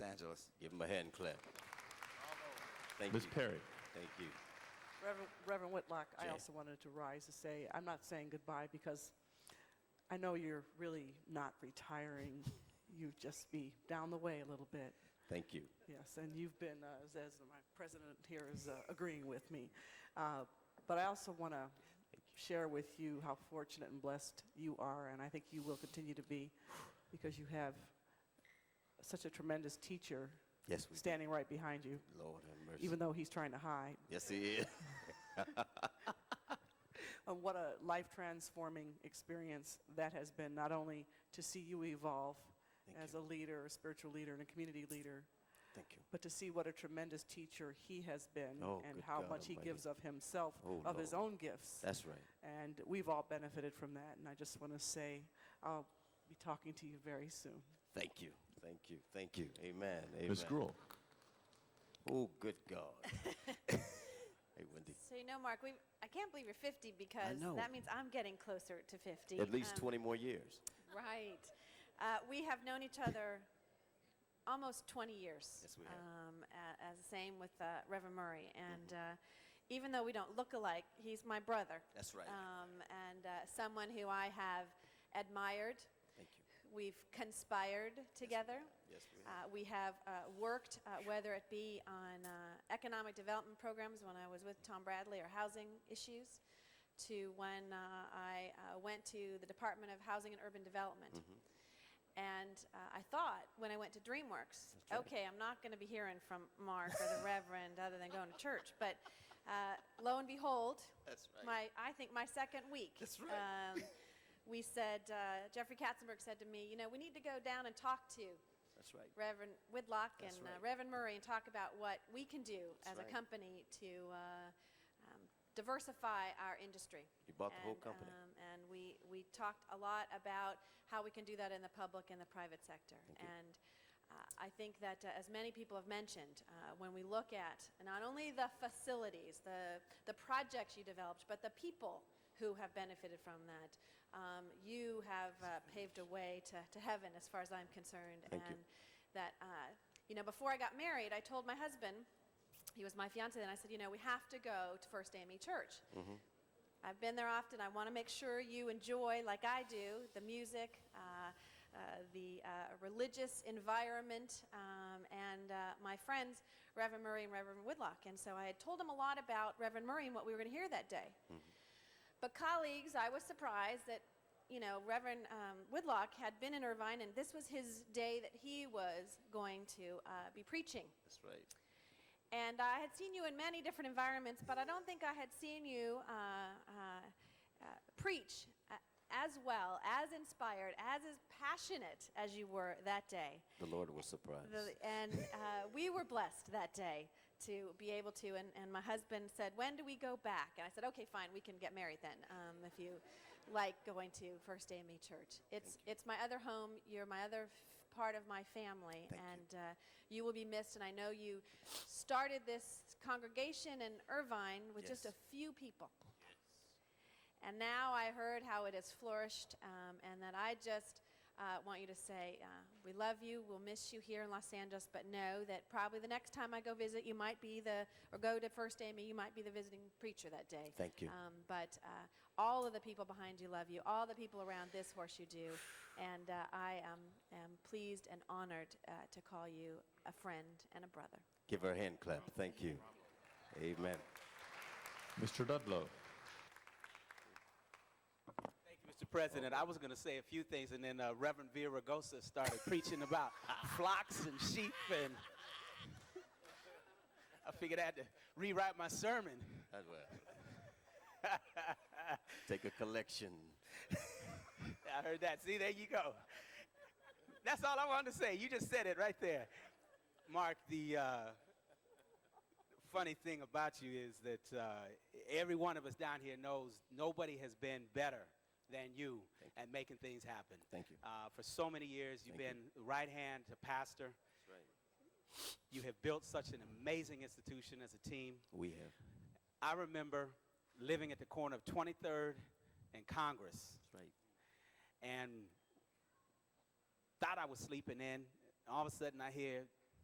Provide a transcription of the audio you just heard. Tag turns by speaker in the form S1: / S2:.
S1: Angeles. Give him a hand clap. Thank
S2: Ms.
S1: you.
S2: Perry.
S1: Thank you.
S3: Reverend, Reverend Whitlock, I
S1: Jay.
S3: also wanted to rise to say I'm not saying goodbye because I know you're really not retiring. you just be down the way a little bit.
S1: Thank you.
S3: Yes, and you've been, uh, as- as my president here is uh, agreeing with me. Uh, But I also want to share with you how fortunate and blessed you are, and I think you will continue to be, because you have such a tremendous teacher
S1: Yes, we do.
S3: standing right behind you,
S1: Lord have mercy.
S3: even though he's trying to hide.
S1: yes, he is.
S3: And what a life transforming experience that has been, not only to see you evolve
S1: Thank
S3: as
S1: you.
S3: a leader, a spiritual leader, and a community leader,
S1: Thank you.
S3: but to see what a tremendous teacher he has been
S1: Oh,
S3: and
S1: good
S3: how
S1: God
S3: much he
S1: Almighty.
S3: gives of himself,
S1: Oh,
S3: of his
S1: Lord.
S3: own gifts.
S1: That's right.
S3: and we've all benefited from that. And I just want to say I'll be talking to you very soon.
S1: Thank you. Thank you. Thank you. Amen. Amen.
S2: Ms. Gruel.
S1: Oh, good God. hey, Wendy.
S4: So you know, Mark, we I can't believe you're 50 because
S1: know.
S4: that means I'm getting closer to 50.
S1: At least
S4: Um,
S1: 20 more years.
S4: Right. Uh, we have known each other almost 20 years.
S1: Yes, we have. Mm-hmm.
S4: Um, a- as the same with uh, Reverend Murray, and uh, even though we don't look alike, he's my brother.
S1: That's right.
S4: Um, and uh, someone who I have admired.
S1: Thank you.
S4: We've conspired together.
S1: Yes, we
S4: Uh, we have uh, worked, uh, whether it be on uh, economic development programs when I was with Tom Bradley or housing issues, to when uh, I uh, went to the Department of Housing and Urban Development.
S1: Mm-hmm.
S4: And uh, I thought when I went to DreamWorks, okay, I'm not going to be hearing from Mark or the Reverend other than going to church. But uh, lo and behold,
S1: That's right.
S4: my I think my second week.
S1: That's right.
S4: Um, we said uh, Jeffrey Katzenberg said to me, you know, we need to go down and talk to
S1: That's right.
S4: Reverend Whitlock
S1: That's
S4: and uh,
S1: right.
S4: Reverend Murray and talk about what we can do
S1: That's
S4: as
S1: right.
S4: a company to uh, um, diversify our industry.
S1: You bought the whole
S4: And,
S1: company.
S4: um, and we, we talked a lot about how we can do that in the public and the private sector.
S1: you.
S4: And uh, I think that, uh, as many people have mentioned, uh, when we look at not only the facilities, the, the projects you developed, but the people who have benefited from that, um, you have uh, paved a way to, to heaven, as far as I'm concerned.
S1: Thank you.
S4: and that, uh, you know, before I got married, I told my husband, he was my fiance, and I said, you know, we have to go to First AME Church. I've been there often. I want to make sure you enjoy, like I do, the music, uh, uh, the uh, religious environment, um, and uh, my friends, Reverend Murray and Reverend Woodlock. And so I had told them a lot about Reverend Murray and what we were going to hear that day. But colleagues, I was surprised that, you know, Reverend um, Woodlock had been in Irvine, and this was his day that he was going to uh, be preaching.
S1: That's right.
S4: And I had seen you in many different environments, but I don't think I had seen you uh, uh, uh, preach uh, as well, as inspired, as, as passionate as you were that day.
S1: The Lord was surprised.
S4: The- and uh, we were blessed that day to be able to. And, and my husband said, "When do we go back?" And I said, "Okay, fine. We can get married then, um, if you like going to First AME Church. It's it's my other home. You're my other f- part of my family,
S1: Thank you.
S4: and Uh, you will be missed. And I know you started this congregation in Irvine with just
S1: Yes.
S4: a few people." And now I heard how it has flourished, um, and that I just uh, want you to say, uh, we love you, we'll miss you here in Los Angeles, but know that probably the next time I go visit, you might be the, or go to First Amy, you might be the visiting preacher that day.
S1: Thank you.
S4: Um, but uh, all of the people behind you love you, all the people around this horseshoe do, and uh, I um, am pleased and honored uh, to call you a friend and a brother.
S1: Give her a hand clap. Thank you. Amen.
S2: Mr. Dudlow.
S5: Thank you, Mr. President. I was going to say a few things, and then uh, Reverend Villaraigosa started preaching about flocks and sheep, and I figured I had to rewrite my sermon.
S1: That's well. Take a collection.
S5: I heard that. See, there you go. That's all I wanted to say. You just said it right there. Mark, the uh, funny thing about you is that uh, every one of us down here knows nobody has been better than you at making things happen.
S1: Thank you.
S5: Uh, for so many years, you've
S1: Thank
S5: been right hand to pastor.
S1: Right.
S5: You have built such an amazing institution as a team.
S1: We have.
S5: I remember living at the corner of 23rd and Congress
S1: That's right.
S5: and thought I was sleeping in. All of a sudden, I hear